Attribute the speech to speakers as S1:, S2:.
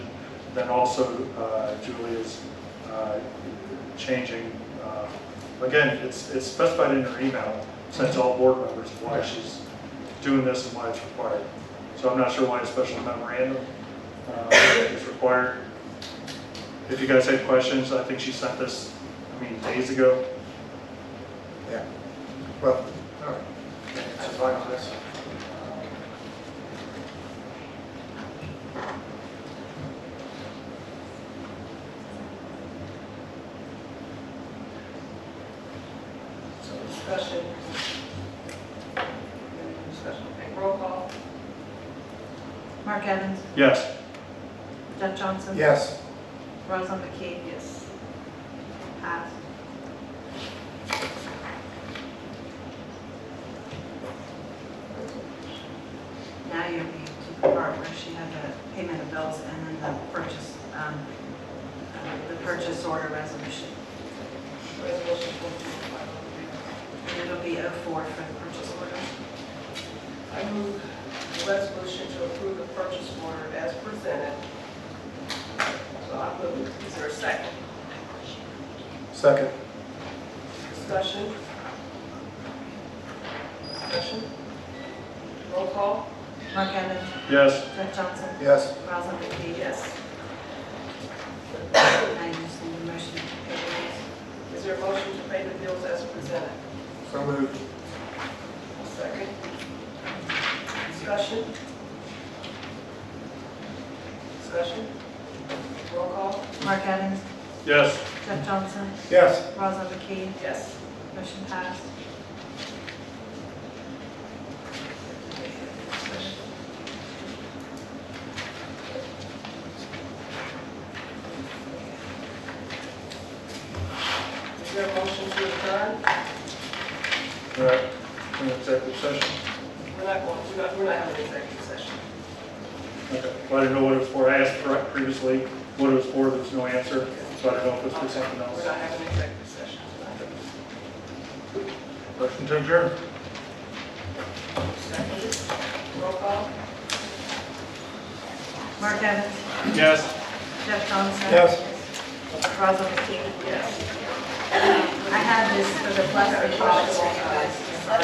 S1: Then also uh, Julie is uh, changing, uh, again, it's it's specified in her email, sent to all board members why she's doing this and why it's required. So I'm not sure why a special memorandum uh, is required. If you guys had questions, I think she sent this, I mean, days ago.
S2: Yeah, well, all right.
S3: So discussion. Any Discussion, okay, roll call.
S4: Mark Evans,
S1: Yes,
S4: Jeff Johnson.
S2: Yes,
S4: Rosalind McKee,
S3: Yes.
S4: passed. Now you need to the part where she had the payment of bills and then the purchase, um, uh, the purchase order resolution.
S3: Resolution oh four two
S4: And it'll be 04 for the purchase order.
S3: five. I move the resolution to approve the purchase order as presented. So I move, is there a second?
S2: second,
S3: Discussion? Discussion? Roll call?
S4: Mark Evans,
S1: yes,
S4: Jeff Johnson,
S2: yes,
S4: Rosalind McKee.
S3: Yes.
S4: Now you just need a motion to pay the bills.
S3: Is there a motion to pay the bills as presented?
S2: so moved,
S3: Second. Discussion? Discussion? Roll call?
S4: Mark Evans,
S1: yes.
S4: Jeff Johnson,
S2: yes,
S4: Rosalind McKee.
S3: Yes.
S4: Motion passed.
S3: Is there a motion to adjourn?
S1: All right, in executive session.
S3: We're not going, we're not, we're not having an executive session.
S1: Okay. Well, I didn't know what it was for. I asked pre- previously what it was for, there was no answer, so I didn't know if it was for something
S3: We're
S1: else.
S3: not having an executive session tonight.
S1: Motion to adjourn?
S3: Second. Roll call?
S4: Mark Evans,
S1: Yes.
S4: Jeff Johnson.
S2: yes.
S4: Rosalind McKee.
S3: Yes.
S4: I had this for the plastic policy, you guys.